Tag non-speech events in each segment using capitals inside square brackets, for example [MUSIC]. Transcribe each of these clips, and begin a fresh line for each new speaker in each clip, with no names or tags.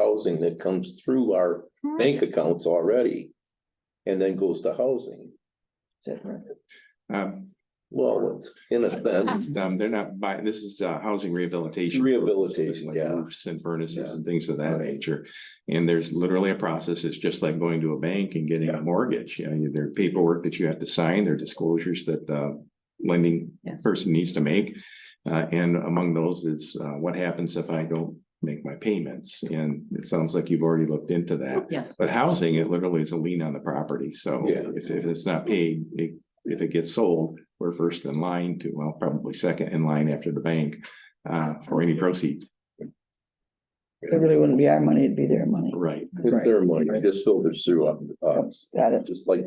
housing that comes through our bank accounts already. And then goes to housing.
Um,
Well, it's in a
[LAUGHS]
sense,
it's, um, they're not buying, this is, uh, housing rehabilitation.
Rehabilitation,
Like
yeah.
roofs And furnaces
Yeah.
and things of that
Right.
nature. And there's literally a process. It's just like going to a bank and getting
Yeah.
a mortgage. You know, there are paperwork that you have to sign, there are disclosures that, uh, lending
Yes.
person needs to make. Uh, and among those is, uh, what happens if I don't make my payments? And it sounds like you've already looked into that.
Yes,
But housing, it literally is a lien on the property, so
Yeah.
if, if it's not paid, it- if it gets sold, we're first in line to, well, probably second in line after the bank. Uh, for any proceeds,
It really wouldn't be our money, it'd be their money.
right,
it's their money, it just filters through us.
Got it.
Just like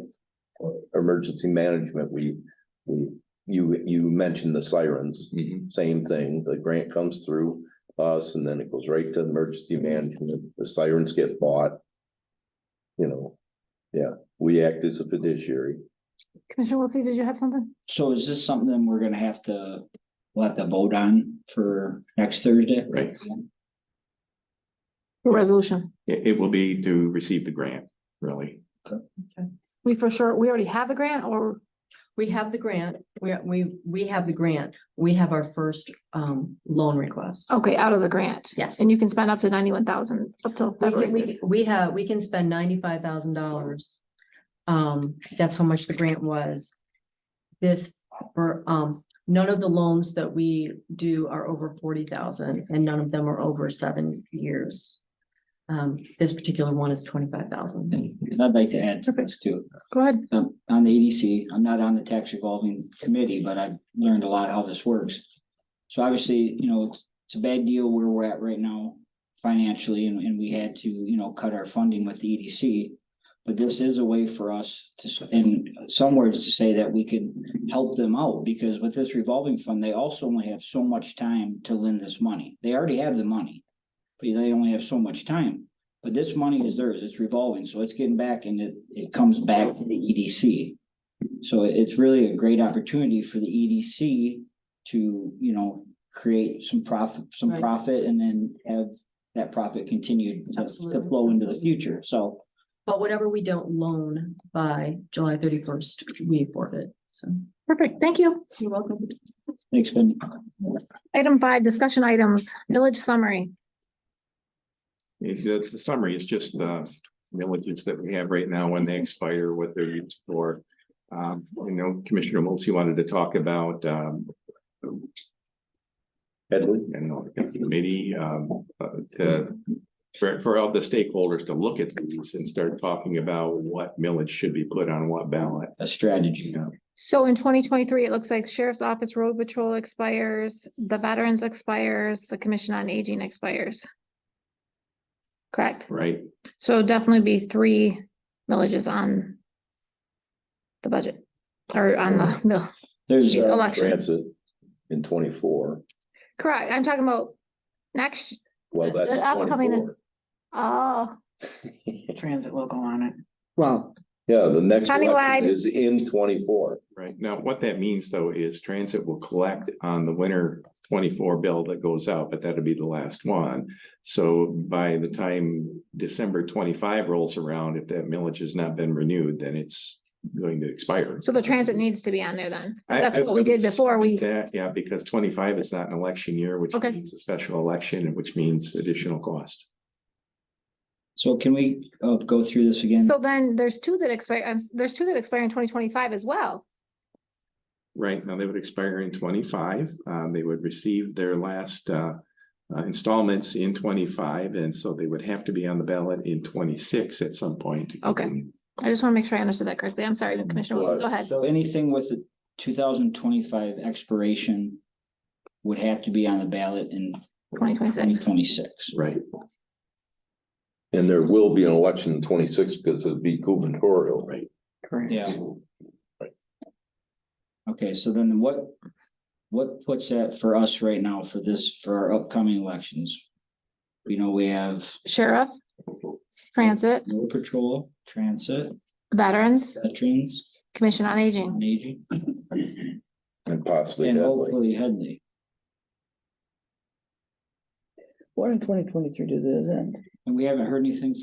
uh, emergency management, we, we, you, you mentioned the sirens.
Mhm.
Same thing, the grant comes through us and then it goes right to emergency management, the sirens get bought. You know, yeah, we act as a fiduciary.
Commissioner Wiltie, did you have something?
So is this something we're gonna have to, we'll have to vote on for next Thursday?
Right.
Your Resolution.
it, it will be to receive the grant, really.
We for sure, we already have the grant or
we have the grant, we, we, we have the grant, we have our first, um, loan request.
Okay, out of the grant.
Yes.
Oh. And you can spend up to ninety-one thousand up till
We can-
February.
we, can- we have, we can spend ninety-five thousand dollars. Um, that's how much the grant was. This, for, um, none of the loans that we do are over forty thousand, and none of them are over seven years. Um, this particular one is twenty-five thousand.
And I'd like to add to this too.
Go ahead.
Um, on the EDC, I'm not on the tax revolving committee, but I've learned a lot how this works. So obviously, you know, it's, it's a bad deal where we're at right now financially and, and we had to, you know, cut our funding with the EDC. But this is a way for us to, s- in some words, to say that we can help them out because with this revolving fund, they also only have so much time to lend this money. They already have the money. But they only have so much time. But this money is theirs, it's revolving, so it's getting back and it, it comes back to the EDC. So it- it's really a great opportunity for the EDC to, you know, create some profit, some
Right.
profit and then have that profit continued to- to
Absolutely.
flow into the future, so.
But whatever we don't loan by July thirty-first, we forfeit, so.
Perfect. Thank you.
You're welcome.
Thanks, Benny.
Item five, discussion items, village summary.
If The the summary is just the villages that we have right now, when they expire, what they're used for. Um, you know, Commissioner Wiltie wanted to talk about, um,
Edwin?
and the committee, um, uh, to. For, for all the stakeholders to look at these and start talking about what millage should be put on what ballot.
A strategy.
You know,
So in twenty twenty-three, it looks like sheriff's office road patrol expires, the veterans expires, the commission on aging expires. Correct.
right?
So definitely be three villages on the budget or on the bill.
There's,
She's
uh,
election.
transit in twenty-four.
Correct. I'm talking about next,
Well,
The- the
that's
upcoming-
twenty-four.
oh,
Transit local on it.
Well,
[LAUGHS] Yeah, the next
Countywide.
election is in twenty-four.
Right. Now, what that means though is transit will collect on the winter twenty-four bill that goes out, but that'll be the last one. So by the time December twenty-five rolls around, if that millage has not been renewed, then it's going to expire.
so the transit needs to be on there then.
I-
That's
I
what we did
wouldn't
before we-
say That, yeah, because twenty-five is not an election year, which
Okay.
means a special election, and which means additional cost.
so can we, uh, go through this again?
So then there's two that expire, um, there's two that expire in twenty twenty-five as well.
Right, now they would expire in twenty-five, um, they would receive their last, uh, uh, installments in twenty-five, and so they would have to be on the ballot in twenty-six at some point.
Okay. I just want to make sure I understood that correctly. I'm sorry, Commissioner Wilson, go ahead.
So anything with the two thousand twenty-five expiration would have to be on the ballot in.
2026.
Twenty twenty-six.
Right,
And there will be an election in twenty-six because it'd be gubernatorial.
right.
Yeah. Okay, so then what, what puts that for us right now for this, for our upcoming elections? You know, we have
Sheriff, transit,
road patrol, transit,
veterans,
veterans,
commission on aging.
and aging,
And possibly
and
that way.
hopefully Headley.
what in twenty twenty-three did this end?
And we haven't heard anything